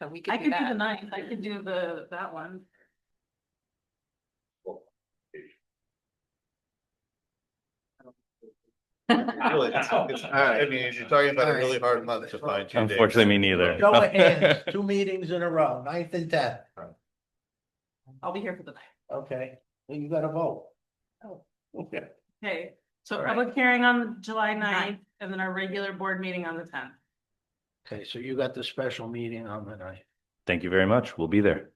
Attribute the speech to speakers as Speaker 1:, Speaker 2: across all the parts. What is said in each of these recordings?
Speaker 1: So we
Speaker 2: I
Speaker 1: could do
Speaker 2: could do the
Speaker 1: that.
Speaker 2: ninth, I could do the, that one.
Speaker 3: Really, it's- it's- I mean, you're talking about a really hard month to find two days.
Speaker 4: Unfortunately, me neither. Oh,
Speaker 5: Show of hands, two meetings in a row, ninth and tenth,
Speaker 2: I'll be here for the night.
Speaker 5: okay, well, you gotta vote.
Speaker 2: Oh.
Speaker 5: Okay,
Speaker 2: Okay, so
Speaker 5: All right.
Speaker 2: public hearing on July ninth and then our regular board meeting on the tenth.
Speaker 5: okay, so you got the special meeting on the ninth.
Speaker 4: Thank you very much. We'll be there.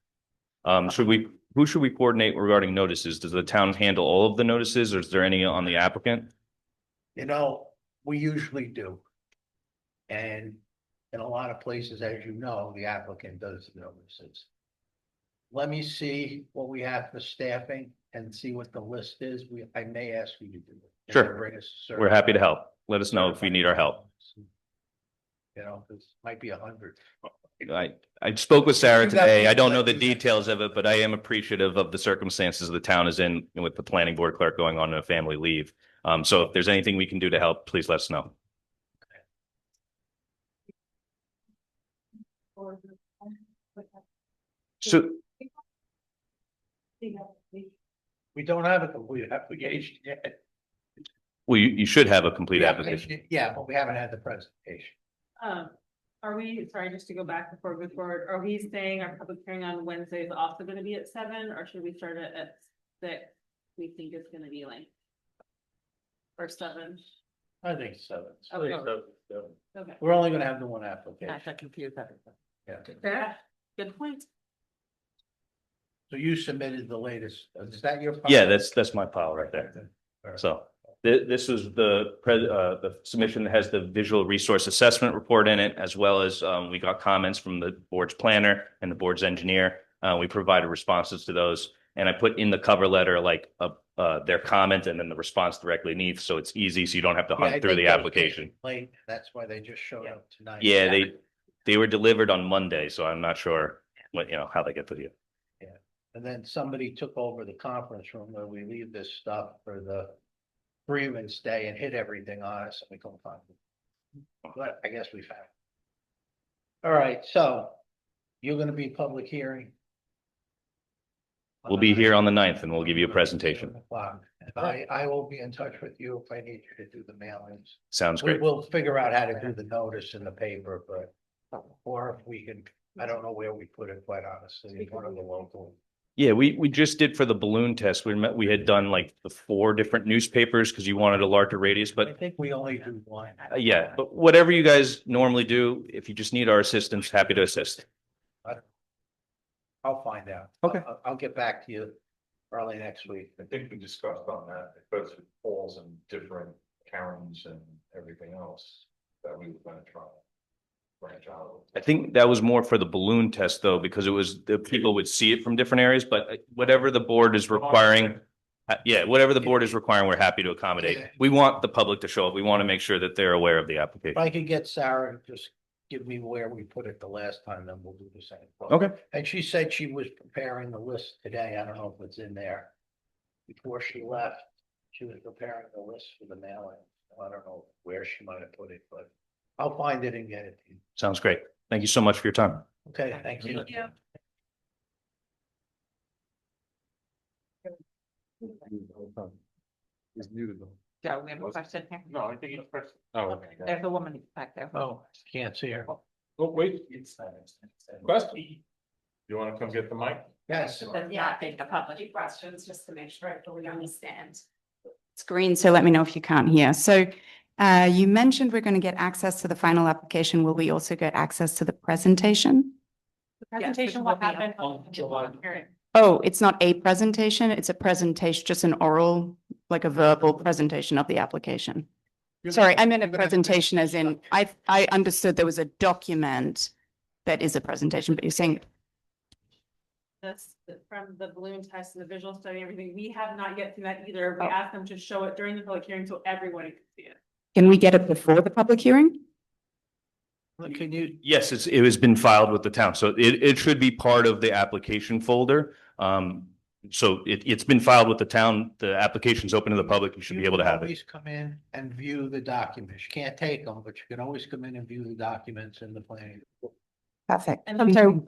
Speaker 4: Um, should we, who should we coordinate regarding notices? Does the town handle all of the notices or is there any on the applicant?
Speaker 5: You know, we usually do. And in a lot of places, as you know, the applicant does the notices. Let me see what we have for staffing and see what the list is. We, I may ask you to do it.
Speaker 4: Sure.
Speaker 5: Bring us a
Speaker 4: We're happy to help. Let us know if you need our help.
Speaker 5: You know, this might be a hundred.
Speaker 4: I, I spoke with Sarah
Speaker 5: You got
Speaker 4: today.
Speaker 5: me.
Speaker 4: I don't know the details of it, but I am appreciative of the circumstances the town is in with the planning board clerk going on a family leave. Um, so if there's anything we can do to help, please let us know. So,
Speaker 5: We don't have a complete application yet.
Speaker 4: well, you, you should have a complete application.
Speaker 5: Yeah, but we haven't had the presentation.
Speaker 2: Um, are we, sorry, just to go back before we go forward, are we saying our public hearing on Wednesday is also gonna be at seven, or should we start it at six? We think it's gonna be like. Or seven,
Speaker 5: I think so.
Speaker 2: Okay. okay.
Speaker 5: We're only gonna have the one application.
Speaker 1: That confused everyone.
Speaker 5: Yeah.
Speaker 2: Fair, good point.
Speaker 5: So you submitted the latest, uh, is that your? file?
Speaker 4: Yeah, that's, that's my pile right there. So thi- this was the pre- uh, the submission that has the visual resource assessment report in it, as well as um, we got comments from the board's planner and the board's engineer. Uh, we provided responses to those and I put in the cover letter, like, uh, uh, their comment and then the response directly beneath. So it's easy. So you don't have to
Speaker 5: Yeah, I
Speaker 4: hunt through
Speaker 5: think
Speaker 4: the
Speaker 5: those came
Speaker 4: application.
Speaker 5: Late, that's why they just showed up tonight.
Speaker 4: Yeah, they, they were delivered on Monday, so I'm not sure what, you know, how they get to you.
Speaker 5: And then somebody took over the conference room where we leave this stuff for the Freeman's Day and hit everything on us and we couldn't find it. But I guess we found. it. All right, so you're gonna be public hearing?
Speaker 4: We'll be here on the ninth and we'll give you a presentation.
Speaker 5: O'clock. And I, I will be in touch with you if I need you to do the mailings.
Speaker 4: Sounds
Speaker 5: We
Speaker 4: great.
Speaker 5: will figure out how to do the notice in the paper, but, or if we can, I don't know where we put it, quite honestly, in one of the local.
Speaker 4: Yeah, we, we just did for the balloon test. We met, we had done like the four different newspapers because you wanted a larger radius,
Speaker 5: I
Speaker 4: but
Speaker 5: think we only do one.
Speaker 4: uh, yeah, but whatever you guys normally do, if you just need our assistance, happy to assist.
Speaker 5: I'll find out.
Speaker 4: Okay.
Speaker 5: I'll, I'll get back to you early next week.
Speaker 3: I think we discussed on that, it goes with polls and different Karens and everything else that we were gonna try. Branch out.
Speaker 4: I think that was more for the balloon test though, because it was, the people would see it from different areas, but uh, whatever the board is requiring. uh, Yeah, whatever the board is requiring, we're happy to accommodate.
Speaker 5: Yeah.
Speaker 4: We want the public to show up. We want to make sure that they're aware of the
Speaker 5: If
Speaker 4: application.
Speaker 5: I could get Sarah to just give me where we put it the last time, then we'll do the same.
Speaker 4: Okay.
Speaker 5: And she said she was preparing the list today. I don't know if it's in there. Before she left, she was preparing the list for the mailing. I don't know where she might have put it, but I'll find it and get it. to you.
Speaker 4: Sounds great. Thank you so much for your time.
Speaker 5: Okay, thank you.
Speaker 2: Thank you.
Speaker 3: Is new though.
Speaker 1: Joe, we have a question here.
Speaker 3: No, I think it's first. Oh.
Speaker 1: There's a woman back there.
Speaker 5: Oh, can't see her.
Speaker 3: Oh, wait. Question. You wanna come get the mic?
Speaker 5: Yes.
Speaker 1: Does
Speaker 6: Yeah,
Speaker 1: not think the
Speaker 6: few
Speaker 1: public.
Speaker 6: questions just to make sure I fully understand. It's green, so let me know if you can't hear. So uh, you mentioned we're going to get access to the final application. Will we also get access to the presentation?
Speaker 1: The
Speaker 2: Presentation will happen.
Speaker 1: on
Speaker 2: July.
Speaker 6: Oh, it's not a presentation, it's a presentation, just an oral, like a verbal presentation of the application. Sorry, I meant a presentation as in, I, I understood there was a document that is a presentation, but you're saying
Speaker 2: This, from the balloon test and the visual study, and everything, we have not yet seen that either. We
Speaker 6: Oh.
Speaker 2: asked them to show it during the public hearing so everyone could see it.
Speaker 6: Can we get it before the public hearing?
Speaker 5: Can you,
Speaker 4: Yes, it's, it has been filed with the town, so it, it should be part of the application folder. Um, so it, it's been filed with the town, the application's open to the public, you should be
Speaker 5: You
Speaker 4: able to
Speaker 5: can
Speaker 4: have it.
Speaker 5: Always come in and view the documents. You can't take them, but you can always come in and view the documents in the planning.
Speaker 6: Perfect.
Speaker 2: And
Speaker 6: I'm sorry,